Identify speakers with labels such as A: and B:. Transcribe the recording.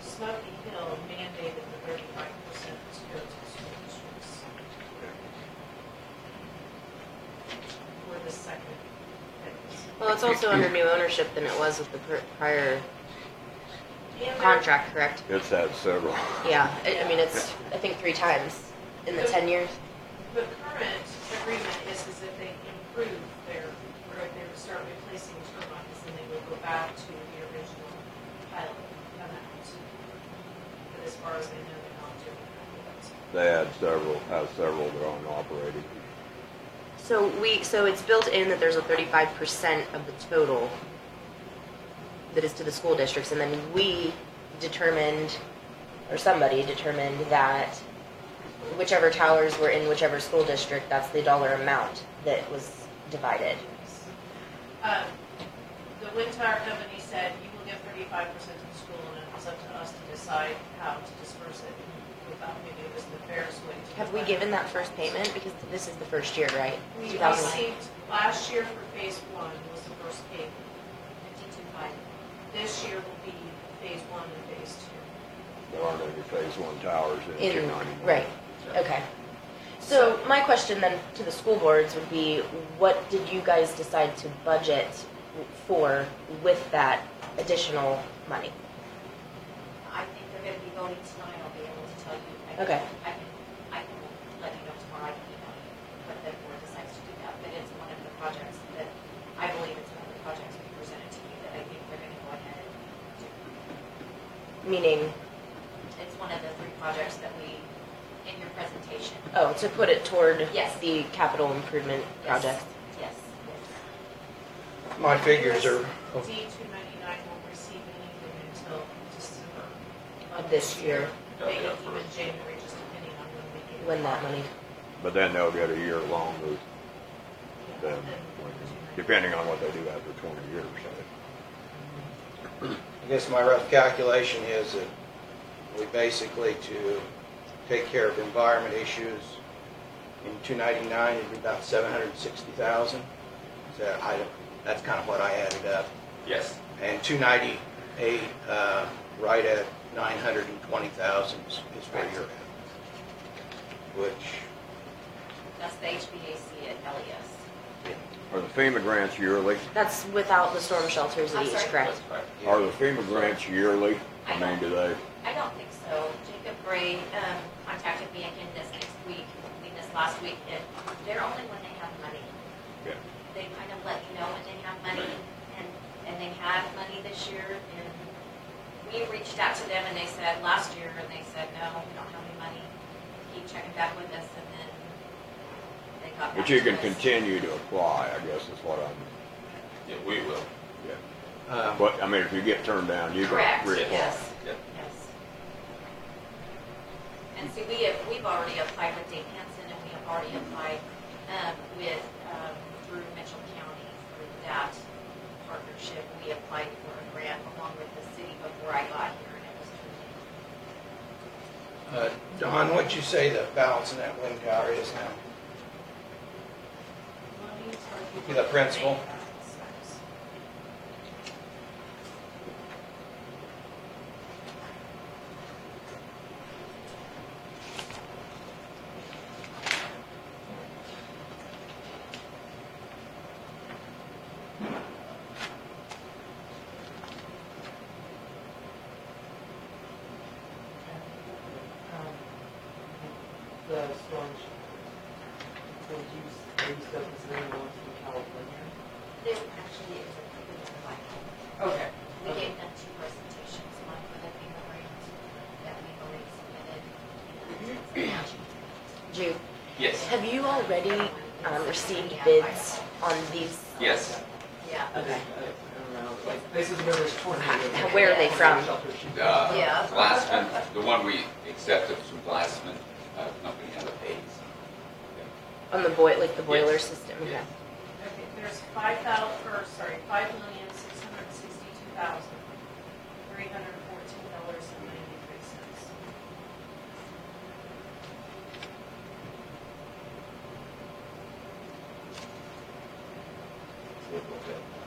A: Smoky Hill mandated the thirty-five percent to go to school districts. We're the second phase.
B: Well, it's also under new ownership than it was with the pr- prior
A: And there-
B: contract, correct?
C: It's had several.
B: Yeah, I, I mean, it's, I think, three times in the ten years.
A: The current agreement is, is if they improve their, or if they would start replacing turbines, then they would go back to the original pilot amount. But as far as they know, they're not doing that.
C: They had several, have several their own operating.
B: So we, so it's built in that there's a thirty-five percent of the total that is to the school districts, and then we determined, or somebody determined that whichever towers were in whichever school district, that's the dollar amount that was divided.
A: Um, The wind tower company said, you will get thirty-five percent of the school, and it was up to us to decide how to disperse it. We thought maybe it was the fairest way to.
B: Have we given that first payment? Because this is the first year, right?
A: We
B: 2009.
A: received, last year for phase one was the first payment, fifty-two five. This year will be phase one and phase two.
C: There aren't any phase one towers in
B: In,
C: Chicken anymore.
B: right, okay. So my question then to the school boards would be, what did you guys decide to budget for with that additional money?
D: I think they're gonna be voting tonight, I'll be able to tell you. I can-
B: Okay.
D: I can, I can let you know tomorrow, I can email you what the board decides to do that, but it's one of the projects that, I believe it's one of the projects we presented to you that I think they're gonna go ahead and do.
B: Meaning,
D: It's one of the three projects that we, in your presentation.
B: oh, to put it toward
D: Yes.
B: the capital improvement
D: Yes.
B: project?
D: Yes.
E: My figures are,
A: D two ninety-nine won't receive anything until December.
B: Of this year.
A: Maybe even January, just depending on when we get.
B: When that money,
C: But then they'll get a year longer,
A: Yeah,
C: than-
A: then-
C: depending on what they do after twenty years, so.
E: I guess my rough calculation is that we basically to take care of environment issues in 299 it'd be about 760,000. So I, that's kind of what I added up.
F: Yes.
E: And 298, uh, right at 920,000 is is where you're at. Which,
D: That's the HVAC at E LES.
C: Are the FEMA grants yearly?
B: that's without the storm shelters at
D: I'm
B: each,
D: sorry?
B: correct?
C: Are the FEMA grants yearly? I
D: I
C: mean,
D: don't-
C: do they?
D: I don't think so. Jacob Gray um, contacted me again this next week, I mean this last week, and they're only when they have money.
C: Yeah.
D: They kind of let you know when they have money, and, and they had money this year, and we reached out to them and they said last year, and they said, no, we don't have any money. Keep checking back with us, and then they got back
C: But you
D: to
C: can
D: us.
C: continue to apply, I guess is what I'm,
F: Yeah, we will.
C: yeah.
E: um,
C: But, I mean, if you get turned down, you can
D: Correct,
C: reapply.
D: yes.
F: Yep.
D: Yes. And see, we have, we've already applied with Dave Hanson, and we have already applied um, with, um, through Mitchell County, through that partnership. We applied for a grant along with the city before I got here, and it was through.
E: uh, Don, what'd you say the balance in that wind tower is now? The principal.
G: Um, The storm was used, they used up the same ones from California.
D: They were actually, it was approved by,
G: Okay.
D: we gave them two presentations, one for the FEMA grant that we already submitted.
B: Jude,
F: Yes.
B: have you already, um, received bids on these?
F: Yes.
D: Yeah.
G: I
B: Okay.
G: just- I I don't know, like, places where there's tornadoes.
B: Where are they from?
G: Shelter should be-
F: Uh,
D: Yeah.
F: Glassman, the one we accepted from Glassman, uh, company out of Hayes.
B: On the boil, like the boiler
F: Yes.
B: system?
F: Yes.
A: Okay, there's five thou, or, sorry, five million, six hundred and sixty-two thousand, three hundred and fourteen dollars and ninety-three cents.
F: Yeah.